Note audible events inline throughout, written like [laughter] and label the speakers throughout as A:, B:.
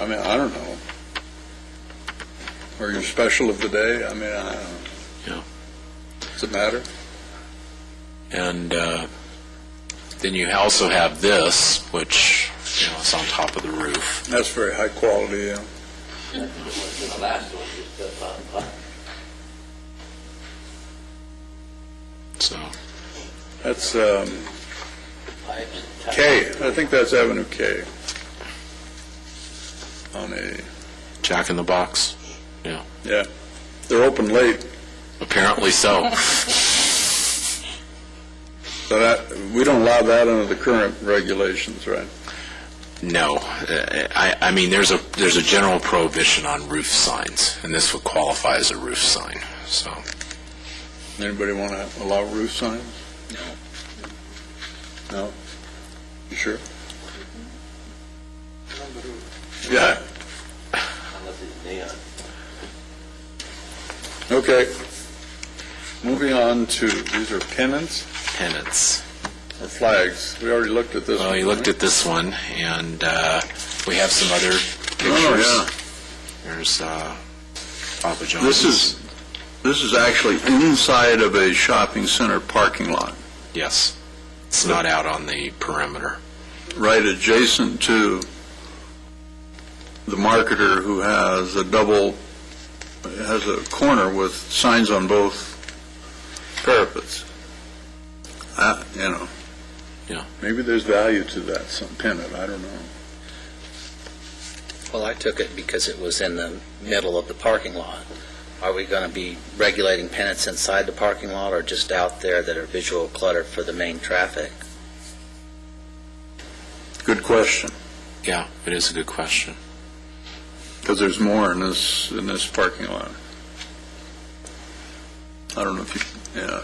A: I mean, I don't know. Or your special of the day, I mean, I don't know.
B: Yeah.
A: Does it matter?
B: And uh, then you also have this, which, you know, is on top of the roof.
A: That's very high quality, yeah.
C: The last one just does not apply.
B: So,
A: That's um,
C: Pipes and towers.
A: K, I think that's Avenue K. On a,
B: Jack in the Box. Yeah.
A: yeah, they're open late, [laughs]
B: Apparently so.
A: so that, we don't allow that under the current regulations, right?
B: No, Uh, I, I mean, there's a, there's a general prohibition on roof signs, and this would qualify as a roof sign, so.
A: Anybody want to allow roof signs? No. No? You sure? Yeah,
C: Unless it's neon.
A: okay. Moving on to, these are pennants
B: Tenants.
A: or flags? We already looked at this one.
B: Well, you looked at this one, and uh, we have some other
A: Oh,
B: pictures.
A: yeah.
B: There's uh, Papa John's.
A: This is, this is actually inside of a shopping center parking lot,
B: Yes. It's not out on the perimeter.
A: right adjacent to the marketer who has a double, has a corner with signs on both parapets. Uh, You know.
B: Yeah.
A: Maybe there's value to that, some pennant, I don't know.
D: Well, I took it because it was in the middle of the parking lot. Are we going to be regulating pennants inside the parking lot or just out there that are visual clutter for the main traffic?
A: Good question,
B: Yeah, it is a good question.
A: because there's more in this, in this parking lot. I don't know if you, yeah.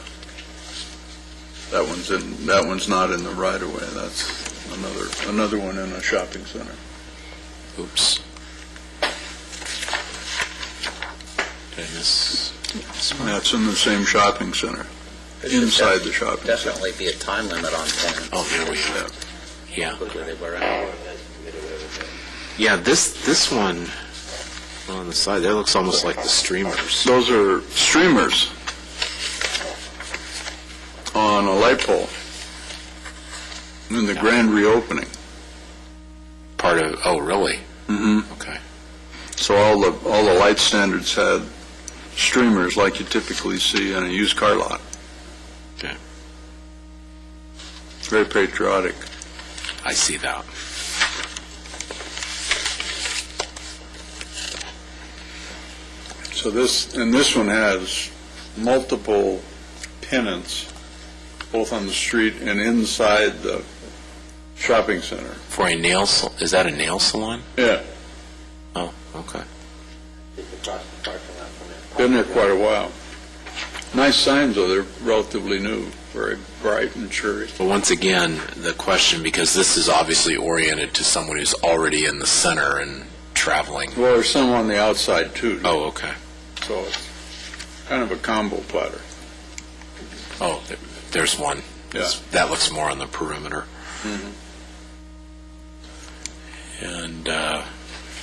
A: That one's in, that one's not in the right of way, that's another, another one in a shopping center.
B: Oops. Did I miss?
A: That's in the same shopping center,
D: There should
A: inside
D: def-
A: the shopping center.
D: Definitely be a time limit on pennants.
B: Oh, there we go.
A: Yeah.
B: Yeah.
D: Whether they were out.
B: Yeah, this, this one on the side, that looks almost like the streamers.
A: Those are streamers on a light pole in the grand reopening.
B: Part of, oh, really?
A: Mm-hmm.
B: Okay.
A: So all the, all the light standards had streamers like you typically see in a used car lot.
B: Okay.
A: It's very patriotic.
B: I see that.
A: So this, and this one has multiple pennants, both on the street and inside the shopping center.
B: For a nail, sal- is that a nail salon?
A: Yeah,
B: Oh, okay.
C: It's across the parking lot from it.
A: been there quite a while. Nice signs, though, they're relatively new, very bright and cheery.
B: But once again, the question, because this is obviously oriented to someone who's already in the center and traveling.
A: Well, there's some on the outside, too,
B: Oh, okay.
A: so it's kind of a combo platter.
B: Oh, there- there's one.
A: Yeah.
B: That looks more on the perimeter. And, uh,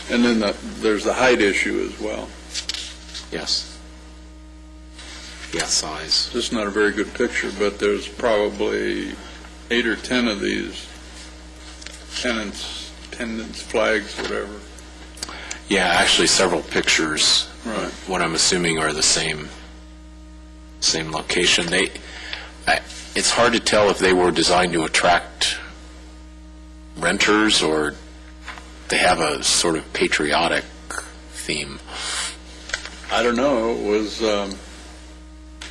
A: And then the- there's the height issue as well.
B: yes. Yeah, size.
A: This is not a very good picture, but there's probably eight or 10 of these pennants, pendants, flags, whatever.
B: Yeah, actually several pictures,
A: Right.
B: what I'm assuming are the same, same location. They, I, it's hard to tell if they were designed to attract renters or they have a sort of patriotic theme.
A: I don't know, it was um,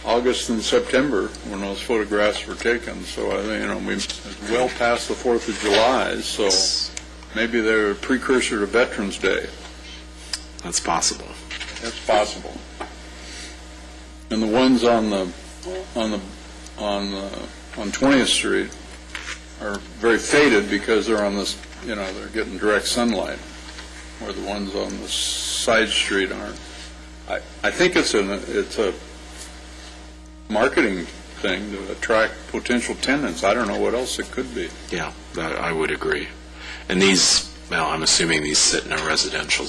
A: August and September when those photographs were taken, so I, think you know, we, it's well past the 4th of July, so maybe they're a precursor to Veterans Day.
B: That's possible.
A: That's possible. And the ones on the, on the, on the, on 20th Street are very faded because they're on this, you know, they're getting direct sunlight, where the ones on the side street aren't. I, I think it's an, it's a marketing thing to attract potential tenants. I don't know what else it could be.
B: Yeah, that, I would agree. And these Well, I'm assuming these sit in a residential